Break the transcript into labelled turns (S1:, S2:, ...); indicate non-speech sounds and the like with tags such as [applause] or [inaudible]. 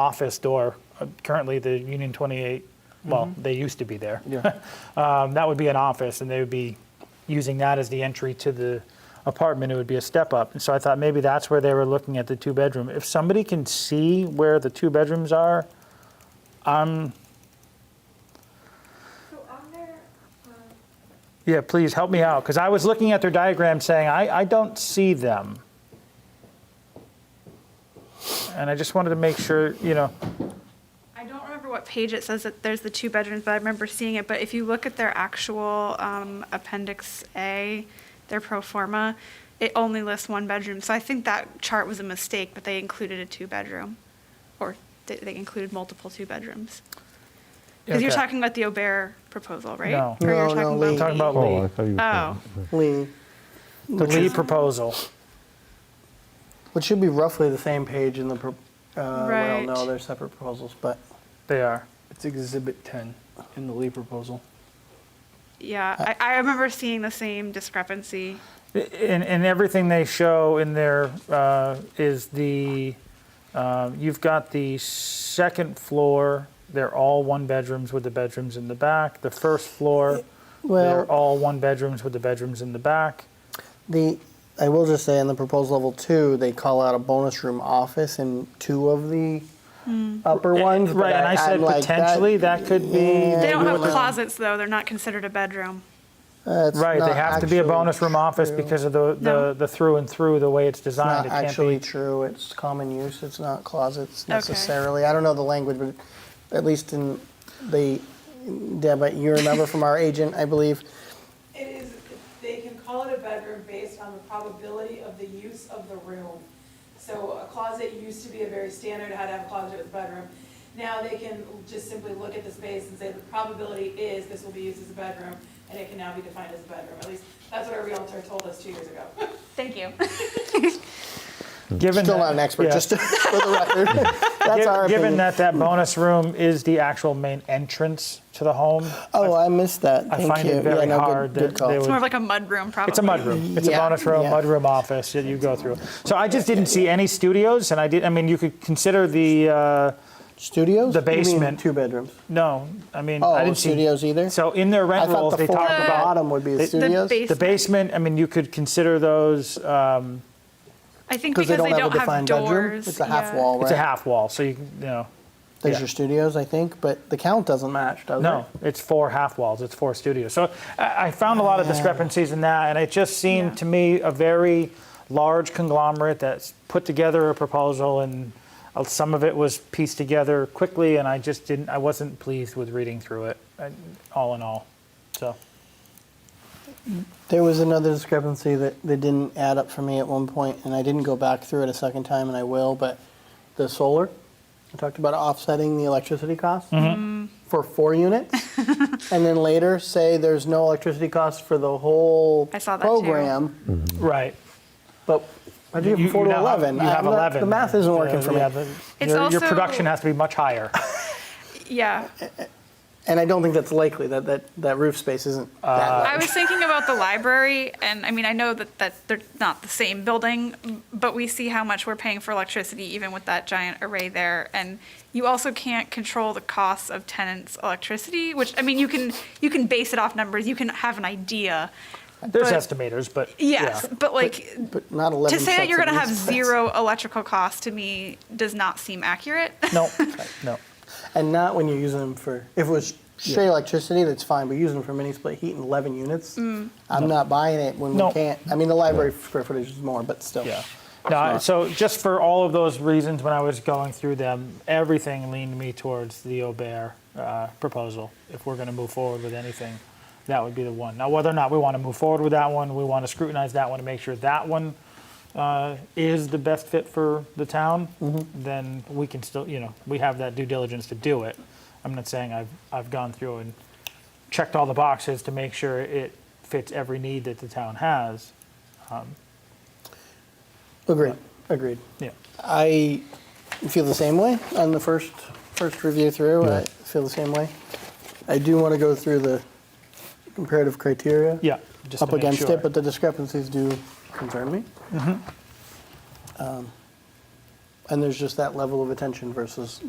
S1: office door, uh, currently the Union 28, well, they used to be there.
S2: Yeah.
S1: Um, That would be an office, and they would be using that as the entry to the apartment. It would be a step up. And so I thought maybe that's where they were looking at the two-bedroom. If somebody can see where the two bedrooms are,
S3: So on there,
S1: yeah, please help me out, because I was looking at their diagram saying, I, I don't see them. And I just wanted to make sure, you know,
S3: I don't remember what page it says that there's the two bedrooms, but I remember seeing it. But if you look at their actual um, Appendix A, their pro forma, it only lists one bedroom. So I think that chart was a mistake, but they included a two-bedroom, or they- they included multiple two-bedrooms. Because you're
S1: Okay.
S3: talking about the Aubert proposal, right?
S1: No.
S3: Or you're
S2: No, no,
S3: talking
S2: we-
S3: about
S1: I'm talking about
S4: Oh, I
S1: Lee,
S4: thought you were.
S2: [laughs]
S3: Oh,
S2: Lee,
S1: the Lee proposal.
S2: which should be roughly the same page in the, pro- uh, well,
S3: Right.
S2: no, they're separate proposals, but
S1: They are.
S5: It's Exhibit 10 in the Lee proposal.
S3: yeah. I- I remember seeing the same discrepancy.
S1: And, and everything they show in there uh, is the, uh, you've got the second floor, they're all one bedrooms with the bedrooms in the back. The first floor, they're
S2: Well-
S1: all one bedrooms with the bedrooms in the back.
S2: the, I will just say in the proposed level two, they call out a bonus room office in two of the upper ones. but
S1: Eh, Right, and I
S2: I'm
S1: said
S2: like, that-
S1: potentially that could be,
S3: They don't
S2: you
S3: have
S2: wouldn't-
S3: closets, though. They're not considered a bedroom.
S2: that's
S1: right, they
S2: not
S1: have to be a
S2: actually
S1: bonus room office
S2: true.
S1: because of the,
S3: No.
S1: the the through and through, the way it's
S2: Not
S1: designed. It can't
S2: actually
S1: be,
S2: true, it's common use, it's not closets necessarily. I don't know the language, but at least in the, Deb, you remember from our agent, I believe,
S6: It is, they can call it a bedroom based on the probability of the use of the room. So a closet used to be a very standard, how to have a closet with a bedroom. Now they can just simply look at the space and say the probability is this will be used as a bedroom, and it can now be defined as a bedroom. At least, that's what our realtor told us two years ago. [laughs]
S3: Thank you.
S1: given
S2: still
S1: that-
S2: not an expert,
S1: yeah.
S2: just [laughs] for the record. That's
S1: Gi-
S2: our
S1: [laughs] Given
S2: opinion.
S1: that that bonus room is the actual main entrance to the home,
S2: Oh, I missed that.
S1: I
S2: Thank
S1: find
S2: you.
S1: it very
S2: yeah, no, good-
S1: hard that
S2: good call.
S1: they
S3: It's more of like a mud room, probably.
S1: It's a mudroom. It's a
S2: Yeah,
S1: bonus room,
S2: yeah.
S1: mudroom office that you go through. So I just didn't see any studios, and I did. I mean, you could consider the uh,
S2: Studios?
S1: the
S2: You mean
S1: basement.
S2: two bedrooms.
S1: no. I mean,
S2: Oh,
S1: I didn't
S2: studios
S1: see
S2: either?
S1: So in their
S2: I
S1: rent
S2: thought
S1: rules,
S2: the
S1: they
S2: floor
S1: talk
S2: at the
S1: about
S2: bottom would be
S1: The-
S2: the
S1: the
S2: studios.
S3: base-
S1: the basement. I mean, you could consider those. Um,
S3: I think
S2: Because
S3: because
S2: they don't have a defined bedroom.
S3: doors.
S2: It's a half
S3: yeah.
S2: wall, right?
S1: It's a half wall, so you can- you know.
S2: There's
S1: yeah.
S2: your studios, I think, but the count doesn't match, does it?
S1: No, it's four half walls. It's four studios. So I, I found a lot of discrepancies in that, and it just seemed
S3: Yeah.
S1: to me a very large conglomerate that's put together a proposal, and uh, some of it was pieced together quickly, and I just didn't. I wasn't pleased with reading through it, uh, all in all. So
S2: There was another discrepancy that, that didn't add up for me at one point, and I didn't go back through it a second time, and I will, but the solar, I talked about offsetting the electricity costs
S1: Mm-hmm.
S3: Mm-hmm.
S2: for four
S3: [laughs]
S2: units. and then later say there's no electricity costs for the whole
S3: I saw that too.
S2: program,
S1: right.
S2: but I do have four to
S1: now
S2: 11.
S1: Have, you have
S2: I'm not-
S1: 11.
S2: The math isn't working
S1: Yeah,
S2: for
S1: yeah,
S2: me.
S1: the- your,
S3: It's
S1: your
S3: also-
S1: production has to be much higher.
S3: Yeah.
S2: And I don't think that's likely, that, that, that roof space isn't that
S1: Uh,
S2: large.
S3: I was thinking about the library, and I mean, I know that, that they're not the same building, but we see how much we're paying for electricity even with that giant array there. And you also can't control the costs of tenants' electricity, which, I mean, you can, you can base it off numbers, you can have an idea.
S1: There's
S3: But-
S1: estimators, but
S3: Yes,
S1: yeah.
S3: but like,
S2: But not 11
S3: to say that you're
S2: sets
S3: going to
S2: of
S3: have
S2: roof space.
S3: zero electrical costs to me does not seem accurate. [laughs]
S1: no, no.
S2: And not when you're using them for, if it was straight electricity, that's fine, but using them for mini split heat in 11 units, I'm not buying it when
S1: No.
S2: we can't. I mean, the library square footage is more, but still.
S1: Yeah. No, I- so just for all of those reasons, when I was going through them, everything leaned me towards the Aubert uh, proposal. If we're going to move forward with anything, that would be the one. Now, whether or not we want to move forward with that one, we want to scrutinize that one to make sure that one uh, is the best fit for the town, then we can still, you know, we have that due diligence to do it. I'm not saying I've, I've gone through and checked all the boxes to make sure it fits every need that the town has.
S2: Agreed, agreed.
S1: Yeah.
S2: I feel the same way on the first, first review through. I
S4: Yeah.
S2: feel the same way. I do want to go through the comparative criteria.
S1: Yeah. just
S2: Up
S1: to make
S2: against
S1: sure. Mm-hmm.
S2: it, but the discrepancies do concern me. Um, And there's just that level of attention versus